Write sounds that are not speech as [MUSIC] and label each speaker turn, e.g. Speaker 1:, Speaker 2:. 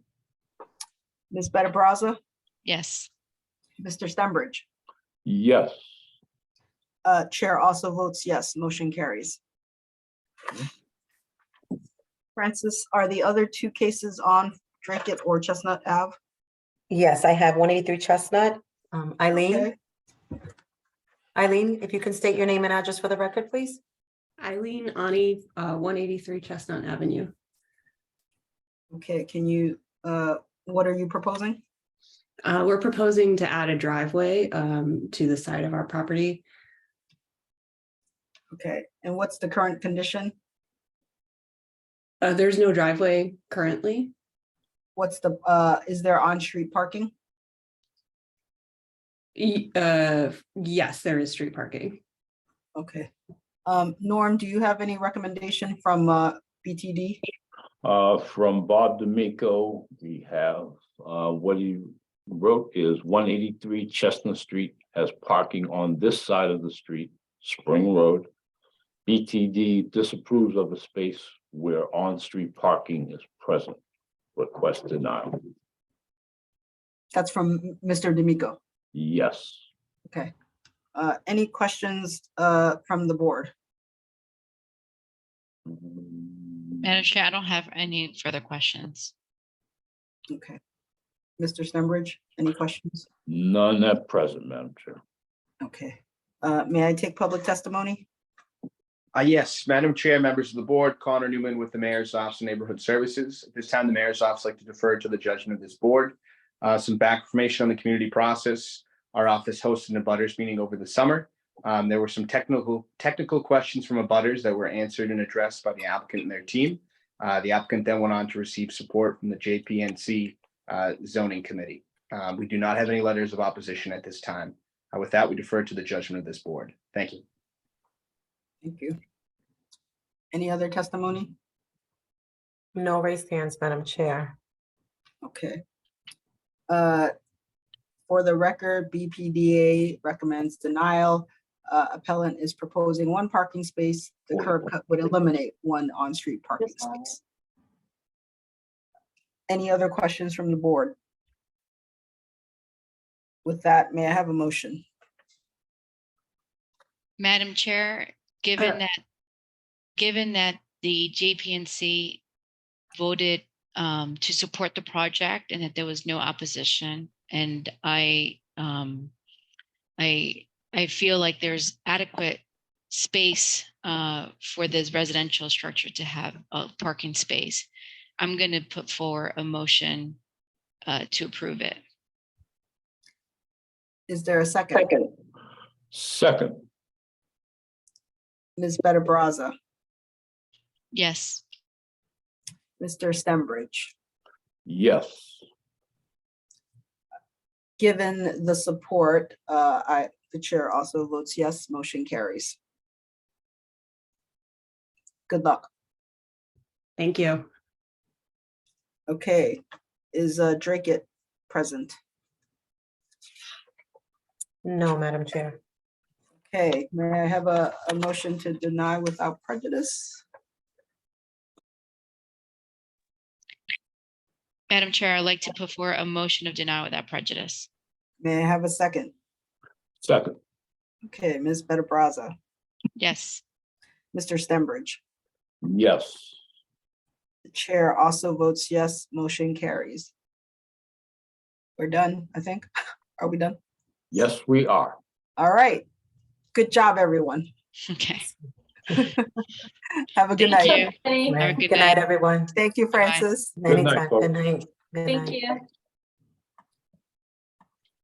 Speaker 1: Ms. Betta Braza,
Speaker 2: Yes.
Speaker 1: Mr. Stenbridge.
Speaker 3: Yes.
Speaker 1: Uh, Chair also votes yes, motion carries. Francis, are the other two cases on Dracut or Chestnut Ave?
Speaker 4: Yes, I have 183 Chestnut. Um, Eileen,
Speaker 1: Okay.
Speaker 4: Eileen, if you can state your name and address for the record, please.
Speaker 5: Eileen Ani, uh, one eighty-three Chestnut Avenue.
Speaker 1: Okay, can you, uh, what are you proposing?
Speaker 5: Uh, we're proposing to add a driveway, um, to the side of our property.
Speaker 1: Okay, and what's the current condition?
Speaker 5: Uh, there's no driveway currently.
Speaker 1: What's the, uh, is there on-street parking?
Speaker 5: Y- uh, yes, there is street parking.
Speaker 1: Okay. Um, Norm, do you have any recommendation from, uh, BTD?
Speaker 3: Uh, from Bob D'Amico, we have, uh, what he wrote is one eighty-three Chestnut Street has parking on this side of the street, Spring Road. BTD disapproves of a space where on-street parking is present. Request denied.
Speaker 1: That's from Mr. D'Amico.
Speaker 3: Yes.
Speaker 1: Okay. Uh, any questions, uh, from the board?
Speaker 2: Madam Chair, I don't have any further questions.
Speaker 1: Okay. Mr. Stenbridge, any questions?
Speaker 3: None at present, Madam Chair.
Speaker 1: Okay. Uh, may I take public testimony?
Speaker 6: Uh, yes, Madam Chair, members of the board, Connor Newman with the Mayor's Office of Neighborhood Services. At this time, the Mayor's Office like to defer to the judgment of this board. Uh, some back information on the community process. Our office hosted a butters meeting over the summer. Um, there were some technical, technical questions from a butters that were answered and addressed by the applicant and their team. Uh, the applicant then went on to receive support from the JPNC uh, zoning committee. Uh, we do not have any letters of opposition at this time. Uh, with that, we defer to the judgment of this board. Thank you.
Speaker 1: Thank you. Any other testimony?
Speaker 4: No raised hands, Madam Chair.
Speaker 1: Okay. Uh, For the record, BPDA recommends denial. Uh, Appellant is proposing one parking space. The curb cut would eliminate one on-street parking space. Any other questions from the board? With that, may I have a motion?
Speaker 2: Madam Chair, given that, given that the JPNC voted um, to support the project and that there was no opposition, and I, um, I, I feel like there's adequate space uh, for this residential structure to have a parking space. I'm going to put forward a motion uh, to approve it.
Speaker 1: Is there a second?
Speaker 3: Second,
Speaker 1: Ms. Better Brazza,
Speaker 2: Yes.
Speaker 1: Mr. Stenbridge.
Speaker 3: yes.
Speaker 1: Given the support, uh, I, the chair also votes yes, motion carries. Good luck.
Speaker 5: Thank you.
Speaker 1: Okay, is uh, Drake it present?
Speaker 4: No, Madam Chair.
Speaker 1: Okay, may I have a, a motion to deny without prejudice?
Speaker 2: Madam Chair, I'd like to put forward a motion of denial without prejudice.
Speaker 1: May I have a second?
Speaker 3: Second,
Speaker 1: Okay, Ms. Better Brazza,
Speaker 2: Yes. [LAUGHS]
Speaker 1: Mr. Stenbridge.
Speaker 3: yes.
Speaker 1: The chair also votes yes, motion carries. We're done, I think. [LAUGHS] Are we done?
Speaker 3: Yes, we are.
Speaker 1: All right. Good job, everyone.
Speaker 2: Okay.
Speaker 1: Have a good
Speaker 2: Thank
Speaker 1: night.
Speaker 2: you.
Speaker 4: Good
Speaker 2: Have a good
Speaker 4: night,
Speaker 2: night.
Speaker 4: everyone.
Speaker 1: Thank you, Francis.
Speaker 3: night,
Speaker 4: Anytime.
Speaker 3: folks.
Speaker 4: Good night. Good night.
Speaker 7: Thank you.